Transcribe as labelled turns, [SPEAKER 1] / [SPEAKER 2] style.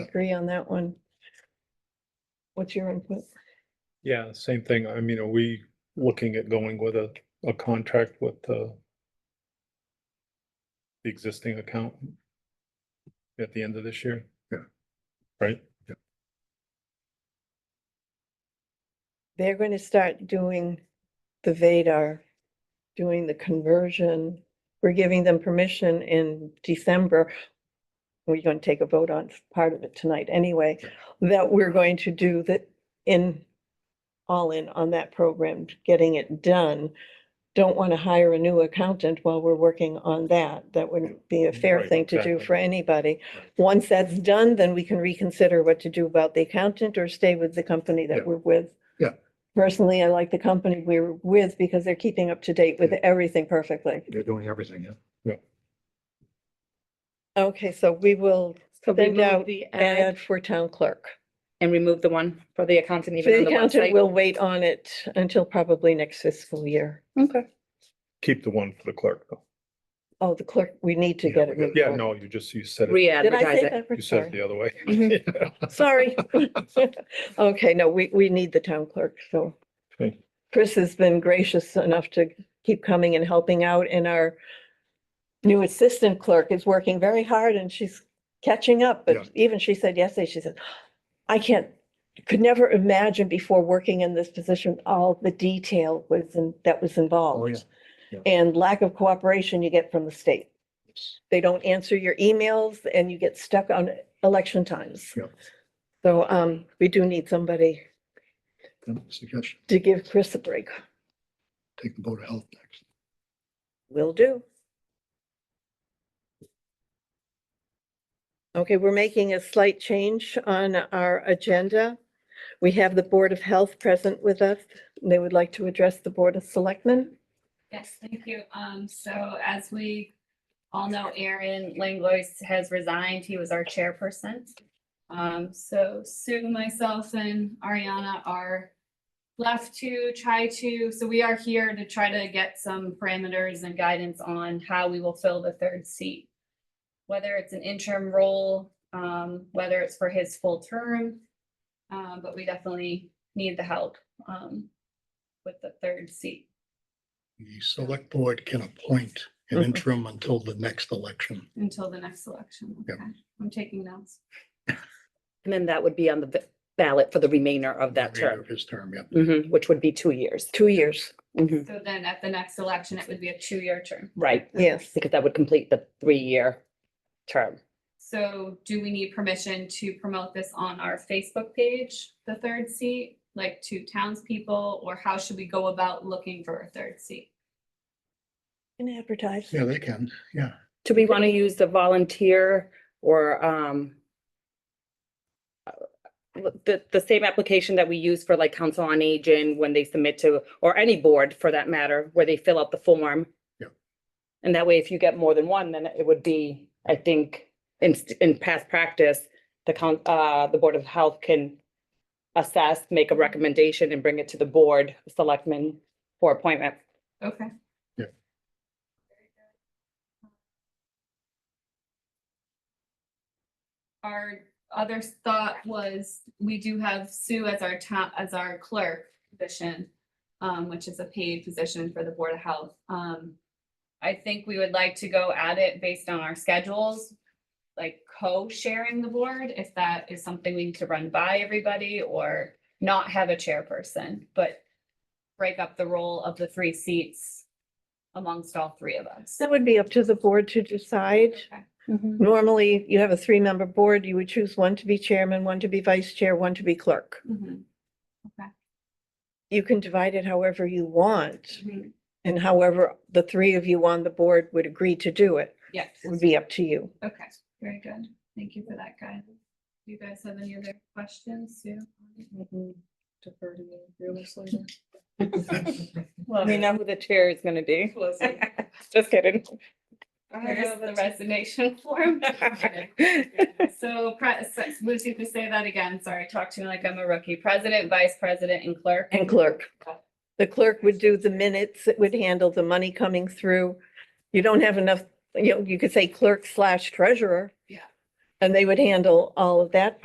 [SPEAKER 1] agree on that one. What's your input?
[SPEAKER 2] Yeah, same thing. I mean, are we looking at going with a, a contract with the the existing account at the end of this year?
[SPEAKER 3] Yeah.
[SPEAKER 2] Right?
[SPEAKER 1] They're gonna start doing the Vadar, doing the conversion. We're giving them permission in December. We're gonna take a vote on part of it tonight anyway, that we're going to do that in, all in on that program, getting it done. Don't wanna hire a new accountant while we're working on that. That wouldn't be a fair
[SPEAKER 2] Right,
[SPEAKER 1] thing to do for
[SPEAKER 2] exactly.
[SPEAKER 1] anybody. Once that's done, then we can reconsider what to do about the accountant or stay with the company
[SPEAKER 3] Yeah.
[SPEAKER 1] that we're with.
[SPEAKER 3] Yeah.
[SPEAKER 1] Personally, I like the company we're with because they're keeping up to date with
[SPEAKER 3] Yeah.
[SPEAKER 1] everything perfectly.
[SPEAKER 3] They're doing everything, yeah.
[SPEAKER 1] Okay, so we will
[SPEAKER 4] So
[SPEAKER 1] Send
[SPEAKER 4] remove
[SPEAKER 1] out
[SPEAKER 4] the ad
[SPEAKER 1] add for town clerk.
[SPEAKER 4] and remove the one for the accountant even on
[SPEAKER 1] The
[SPEAKER 4] the
[SPEAKER 1] accountant
[SPEAKER 4] website.
[SPEAKER 1] will wait on it until probably next fiscal year.
[SPEAKER 4] Okay.
[SPEAKER 2] Keep the one for the clerk though.
[SPEAKER 1] Oh, the clerk, we need to
[SPEAKER 3] Yeah,
[SPEAKER 1] get
[SPEAKER 3] we
[SPEAKER 1] it.
[SPEAKER 3] got-
[SPEAKER 2] Yeah,
[SPEAKER 1] removed.
[SPEAKER 2] no, you just, you said it,
[SPEAKER 1] Did I say
[SPEAKER 4] Re-advertise it.
[SPEAKER 1] that?
[SPEAKER 2] you said it the other way.
[SPEAKER 1] Sorry. Sorry. Okay, no, we, we need the town clerk, so.
[SPEAKER 2] Okay.
[SPEAKER 1] Chris has been gracious enough to keep coming and helping out and our new assistant clerk is working very hard and she's catching up,
[SPEAKER 3] Yeah.
[SPEAKER 1] but even she said yesterday, she said, I can't, could never imagine before working in this position, all the detail was, in- that was involved.
[SPEAKER 3] Oh, Yeah.
[SPEAKER 1] And lack of cooperation you get from the state. They don't answer your emails and you get stuck on election times.
[SPEAKER 3] Yeah.
[SPEAKER 1] So um, we do need somebody
[SPEAKER 3] Then Suggestion,
[SPEAKER 1] to give Chris a break.
[SPEAKER 3] take the Board of Health next.
[SPEAKER 1] Will do. Okay, we're making a slight change on our agenda. We have the Board of Health present with us. They would like to address the Board of Selectmen.
[SPEAKER 5] Yes, thank you. Um, so as we all know, Aaron Langlois has resigned. He was our chairperson. Um, so Sue, myself and Ariana are left to try to, so we are here to try to get some parameters and guidance on how we will fill the third seat. Whether it's an interim role, um, whether it's for his full term. Um, but we definitely need the help, um, with the third seat.
[SPEAKER 6] The select board can appoint an
[SPEAKER 1] Mhm.
[SPEAKER 6] interim until the next election.
[SPEAKER 5] Until the next election,
[SPEAKER 6] Yep.
[SPEAKER 5] okay, I'm taking notes.
[SPEAKER 4] And then that would be on the ba- ballot for the remainder of that
[SPEAKER 6] remainder
[SPEAKER 4] term,
[SPEAKER 6] of His term, yeah.
[SPEAKER 4] Mhm, which would be two years.
[SPEAKER 1] Two years.
[SPEAKER 4] Mhm,
[SPEAKER 5] So then at the next election, it would be a two-year term.
[SPEAKER 4] Right,
[SPEAKER 1] Yes.
[SPEAKER 4] because that would complete the three-year term.
[SPEAKER 5] So do we need permission to promote this on our Facebook page, the third seat? Like to townspeople, or how should we go about looking for a third seat?
[SPEAKER 1] Can advertise.
[SPEAKER 6] Yeah, they can, yeah.
[SPEAKER 4] Do we want to use the volunteer or um uh, the, the same application that we use for like council on aging when they submit to, or any board for that matter, where they fill out the form?
[SPEAKER 6] Yeah.
[SPEAKER 4] And that way, if you get more than one, then it would be, I think, in, st- in past practice, the coun, uh, the Board of Health can assess, make a recommendation and bring it to the board, of selectmen for appointment.
[SPEAKER 5] Okay.
[SPEAKER 3] Yeah.
[SPEAKER 5] Our other thought was, we do have Sue as our town, as our clerk position, um, which is a paid position for the Board of Health. Um, I think we would like to go at it based on our schedules, like co-sharing the board, if that is something we need to run by everybody or not have a chairperson, but break up the role of the three seats amongst all three of us.
[SPEAKER 1] That would be up to the board to decide.
[SPEAKER 5] Okay.
[SPEAKER 1] Mm-hmm. Normally, you have a three-member board. You would choose one to be chairman, one to be vice chair, one to be clerk.
[SPEAKER 5] Mhm,
[SPEAKER 1] You can divide it however you want
[SPEAKER 5] mhm.
[SPEAKER 1] and however the three of you on the board would agree to do it.
[SPEAKER 5] Yes,
[SPEAKER 1] It would be up to you.
[SPEAKER 5] okay, very good. Thank you for that guidance. Do you guys have any other questions, Sue? Defer to me, realistically. Well,
[SPEAKER 4] We know who the chair is gonna be. Just kidding.
[SPEAKER 5] There's the resignation form. So, pre- so- Lucy, to say that again, sorry, talk to me like I'm a rookie. President, vice president, and clerk.
[SPEAKER 1] And clerk. The clerk would do the minutes, it would handle the money coming through. You don't have enough, you know, you could say clerk slash treasurer.
[SPEAKER 5] Yeah.
[SPEAKER 1] And they would handle all of that